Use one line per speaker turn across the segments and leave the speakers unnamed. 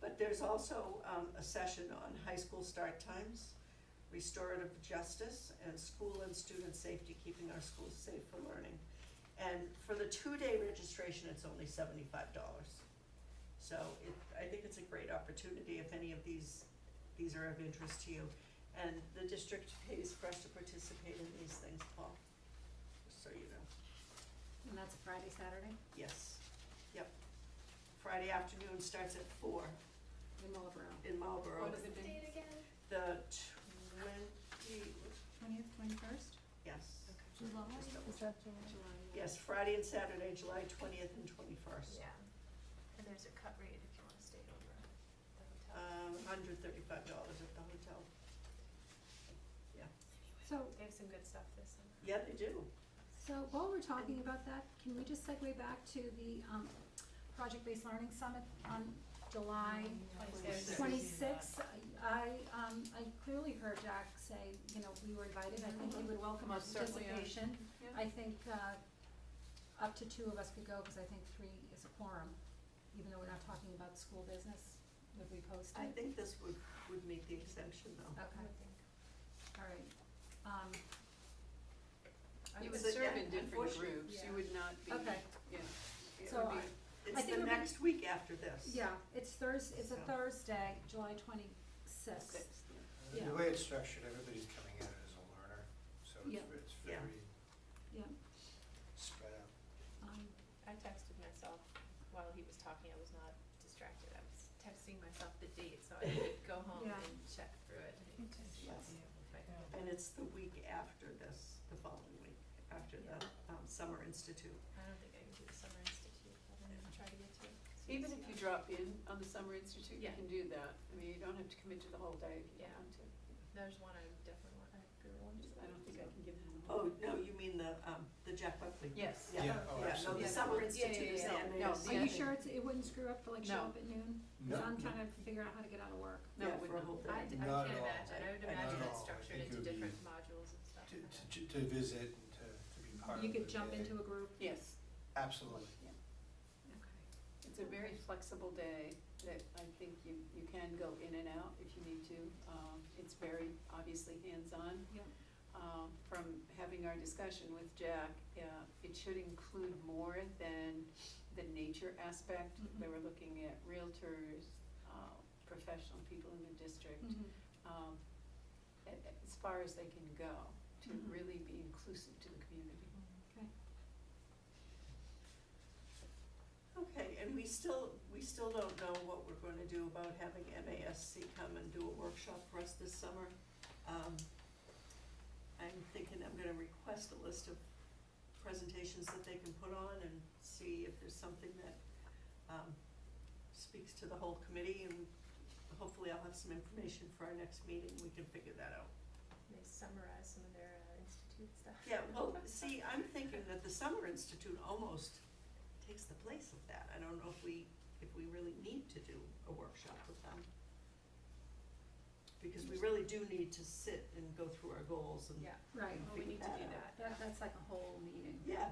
But there's also um, a session on high school start times, restorative justice, and school and student safety, keeping our schools safe for learning. And for the two-day registration, it's only seventy-five dollars. So it, I think it's a great opportunity if any of these, these are of interest to you. And the district pays for us to participate in these things, Paul, just so you know.
And that's a Friday, Saturday,
Yes, yep. Friday afternoon starts at four
in Marlboro.
in Marlborough.
What is it,
Date again?
The twenty,
twentieth, twenty-first?
yes,
July,
Just double
is that July? July, yeah.
yes, Friday and Saturday, July twentieth and twenty-first.
Yeah, and there's a cut rate if you wanna stay over at the hotel.
Um, hundred thirty-five dollars at the hotel. Yeah,
So,
They have some good stuff this summer.
yeah, they do.
so while we're talking about that, can we just segue back to the, um, project-based learning summit on July
Twenty-sixth.
twenty-sixth? I, um, I clearly heard Jack say, you know, we were invited, I think he would welcome our
Most certainly, yeah.
participation.
Yeah.
I think, uh, up to two of us could go, because I think three is a quorum, even though we're not talking about school business, would we post
I
it?
think this would, would meet the exemption though.
Okay,
I would think.
all right. Um, I
You would
was-
So,
serve
yeah,
in different
unfortunately,
groups,
yeah.
you would not be,
Okay.
yeah. It
So
would be-
I-
It's
think
the
we're-
next week after this.
Yeah, it's Thurs, it's a
So.
Thursday, July twenty-sixth. Yeah.
The way it's structured, everybody's coming at it as a learner, so
Yeah.
it's- it's
Yeah.
very
Yeah.
spread out.
Um,
I texted myself while he was talking, I was not distracted, I was texting myself the date, so I could go home
Yeah.
and check through it. and see
Yes.
if I-
And it's the week after this, the following week, after the um, Summer Institute.
I don't think I can do the summer institute, I'm gonna try to get to it.
Even if you drop in on the summer institute, you
Yeah.
can do that. I mean, you don't have to commit to the whole day if you
Yeah.
don't want to.
There's one I definitely want, I really want to.
I don't think I can give him. a-
Oh, no, you mean the, um, the Jack Buckley?
Yes.
Yeah.
Yeah,
Yeah,
oh,
no, the
absolutely.
Summer
Yeah,
Institute is
yeah, yeah,
the
yeah. No,
Are
Yeah, I
you
NASC.
think-
sure it's, it wouldn't screw up to like show
No.
up at noon?
No.
So I'm trying to figure out how to get out of work.
No,
Yeah,
it would
for a
not.
whole
I, I
day.
can't
Not at all.
imagine, I would
I- I-
imagine
Not at
it's
all.
structured
It
into
could be-
different modules and stuff.
To, to, to visit and to, to be part of
You
the
could jump
day.
into a group.
Yes,
Absolutely.
Okay.
it's a very flexible day that I think you, you can go in and out if you need to. Um, It's very obviously hands-on.
Yeah.
um, from having our discussion with Jack, uh, it should include more than the nature aspect.
Mhm.
Mm-hmm.
They were looking at realtors, uh, professional people in the district,
Mhm.
Mm-hmm.
um, a- a- as far as they can go to
Mm-hmm.
Mhm.
really be inclusive to the community.
Okay.
Okay, and we still, we still don't know what we're going to do about having MASC come and do a workshop for us this summer. Um, I'm thinking I'm going to request a list of presentations that they can put on and see if there's something that um, speaks to the whole committee, and hopefully I'll have some information for our next meeting, we can figure that out.
They summarize some of their uh, institute stuff.
Yeah, well, see, I'm thinking that the Summer Institute almost takes the place of that. I don't know if we, if we really need to do a workshop with them. Because we really do need to sit and go through our goals and.
Yeah,
Right,
well, we need to do that.
that, that's like a whole meeting.
Yeah,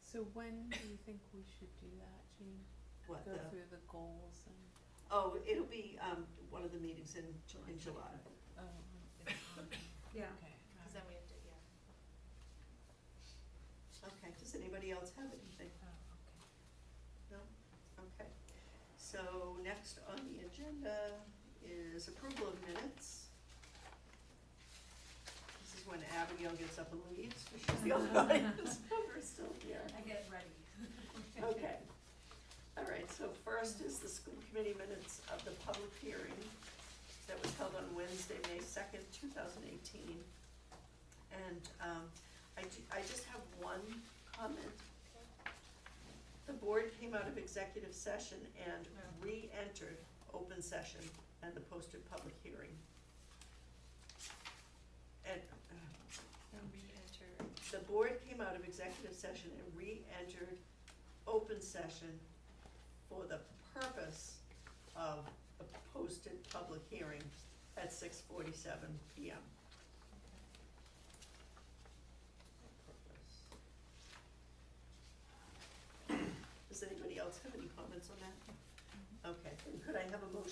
So when do you think we should do that, Jean?
what
Go
the,
through the goals and,
oh, it'll be, um, one of the meetings in, in July.
July.
oh, it's on-
Yeah.
okay.
Because then we have to, yeah.
Okay, does anybody else have anything?
Oh, okay.
No? Okay. So next on the agenda is approval of minutes. This is when Abigail gets up and leaves, but she's the only audience member still here.
I get ready.
Okay. All right, so first is the school committee minutes of the public hearing that was held on Wednesday, May 2nd, 2018. And um, I ju- I just have one comment. The board came out of executive session and re-entered open session and the posted public hearing. And, uh,
Re-enter
the board came out of executive session and re-entered open session for the purpose of a posted public hearing at six forty-seven PM.
Mm-hmm.
Does anybody else have any comments on that? Okay, then could I have a motion